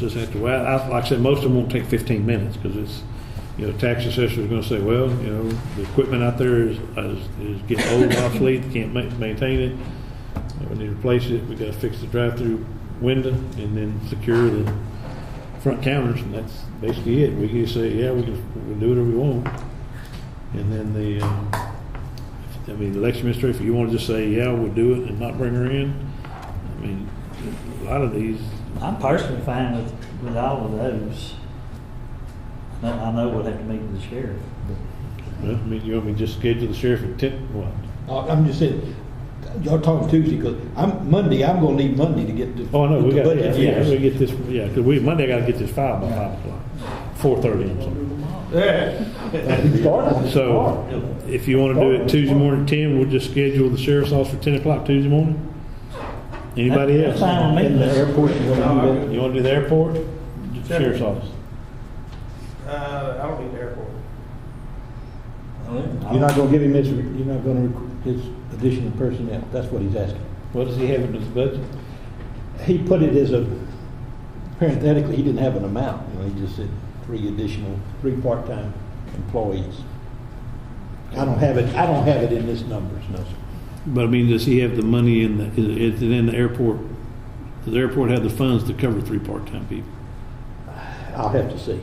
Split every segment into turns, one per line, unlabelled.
Just have to, well, I, like I said, most of them won't take fifteen minutes, because it's, you know, tax assessor's gonna say, well, you know, the equipment out there is, is, is getting old, obsolete, can't ma- maintain it. We need to replace it, we gotta fix the drive-through window, and then secure the front counters, and that's basically it. We can say, yeah, we can, we can do whatever we want. And then the, um, I mean, the election administrator, if you wanna just say, yeah, we'll do it, and not bring her in, I mean, a lot of these,
I'm personally fine with, with all of those. I know, I know we'll have to meet with the sheriff.
Well, I mean, you want me to just schedule the sheriff at ten, what?
Uh, I'm just saying, y'all talking Tuesday, because I'm, Monday, I'm gonna need Monday to get the.
Oh, no, we
the
got, yeah,
budget
yeah, we
finished.
get this, yeah, because we, Monday I gotta get this filed by five o'clock, four thirty or something. So, if you wanna do it Tuesday morning at ten, we'll just schedule the sheriff's office for ten o'clock Tuesday morning? Anybody
That's fine.
else?
we-
And the airport, you gonna do
You wanna do the airport, The sheriff's office?
Uh, I don't need the airport.
that? You're not gonna give him this, you're not gonna, rec- his additional personnel, that's what he's asking.
What does he have in his budget?
He put it as a, parenthetically, he didn't have an amount, you know, he just said three additional, three part-time employees. I don't have it, I don't have it in this numbers, no, sir.
But I mean, does he have the money in the, is, is it in the airport? Does the airport have the funds to cover three part-time people?
I'll have to see.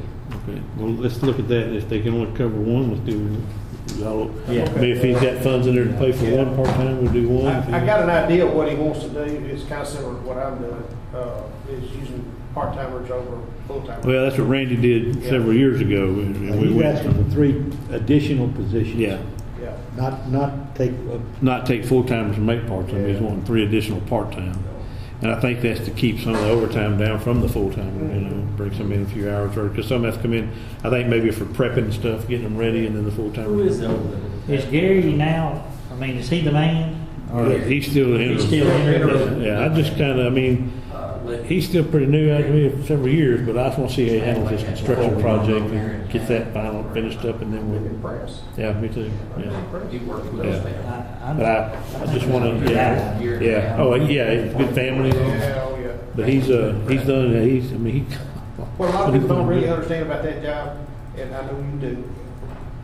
Okay, well, let's look at that, if they can only cover one, let's do, y'all,
Yeah.
maybe if he's got funds in there to pay for one part-time, we'll do one.
I, I got an idea of what he wants to do, it's kind of similar to what I'm doing, uh, is using part-timers over full-timers.
Well, that's what Randy did several years ago. and- and we
He's
went-
asking for three additional positions.
Yeah,
Yeah.
Not, not take, uh,
not take full-timers and make part-time, he's wanting three additional part-time. And I think that's to keep some of the overtime down from the full-timer, you
Mm-hmm.
know, bring some in a few hours early, because some have to come in, I think maybe for prepping and stuff, getting them ready, and then the full-timer.
Is Gary now, I mean, is he the man? Or-
Yeah, He's still in.
He's still in.
Yeah, I just kinda, I mean,
uh,
He's still pretty new, I've been here for several years, but I just want to see how he handles this construction project, and get that final finished up, and then we'll,
Impressed.
yeah, me too, yeah.
He worked with
Yeah.
us
I,
there.
I'm-
But I, I just want to, yeah,
Year and a
yeah,
half.
oh, yeah, he's a good family,
Yeah, oh, yeah.
but he's, uh, he's done, he's, I mean, he.
What a lot of people don't really understand about that job, and I know you do,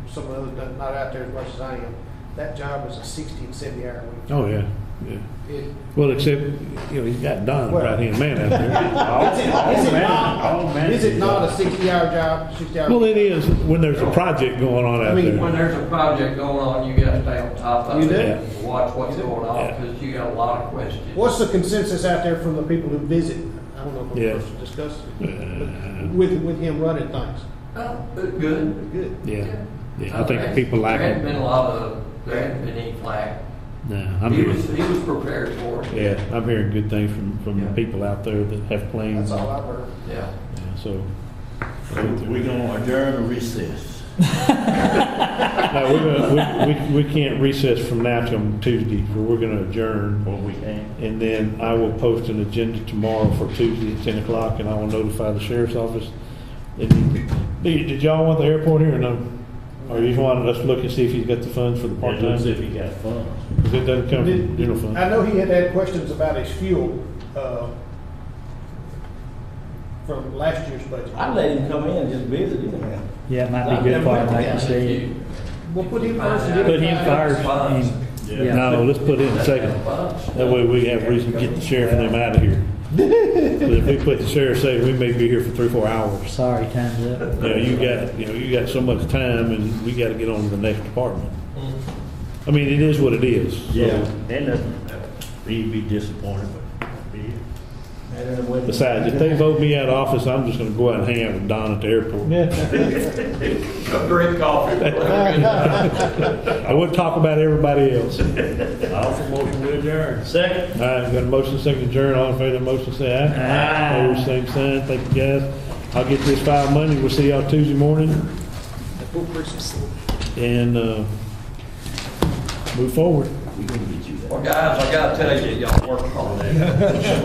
some of the others not out there as much as I am, that job is a sixty and seventy hour week.
Oh, yeah, yeah,
It-
well, except, you know, he's got Don right hand man out there.
Is it- is it
Oh,
not,
man.
is it not a sixty-hour job, sixty-hour?
Well, it is, when there's a project going on out
I mean,
When
there,
there's a project going on, you gotta stay on top of
You do.
it. and Watch what's going on,
Yeah.
because you got a lot of questions.
What's the consensus out there from the people who visit? I don't know if
Yeah.
we're supposed to discuss
Uh.
it, with, with him running things.
Oh, it's good.
Good.
yeah, yeah, I
Uh,
think
there-
people like
There hadn't been a
it.
lot of, there hadn't been any flack.
No, I'm
He
here.
was, he was prepared for it.
Yeah, I'm hearing good things from, from
Yeah.
people out there that have
That's
planes,
all I've heard.
Yeah.
Yeah, so.
We're gonna adjourn or recess.
No, we're gonna, we, we, we can't recess from now till Tuesday, so we're gonna adjourn.
Well, we can.
And then I will post an agenda tomorrow for Tuesday at ten o'clock, and I will notify the sheriff's office. And Did, did y'all want the airport here or no? Or you wanted us to look and see if he's got the funds for the part-time?
As if he got funds.
Because it doesn't come from
Did-
general fund.
I know he had had questions about his fuel, uh, from last year's budget.
I let him come in and just visit anyhow.
Yeah, it might be good for him, like you said.
We'll put him first. and
Put him
everybody else.
first and,
Yeah.
yeah.
No, let's put in second. That way we have reason to get the sheriff and them out of here. But if we put the sheriff, say, we may be here for three, four hours.
Sorry, time's up.
You know, you got, you know, you got so much time and we gotta get on to the next department. I mean, it is what it is. so-
Yeah, then uh, he'd be disappointed, but be it.
Besides, if they vote me out of office, I'm just gonna go out and hang out with Don at the airport.
A great coffee.
I would talk about everybody else. All
Also motion to adjourn. Second.
right, got a motion, second adjourn, all in favor of the motion, say aye.
Aye.
Opposed, same sign, thank you guys. I'll get this filed Monday, we'll see y'all Tuesday morning. and uh, move forward.
Well, guys, I gotta tell you, y'all worked hard.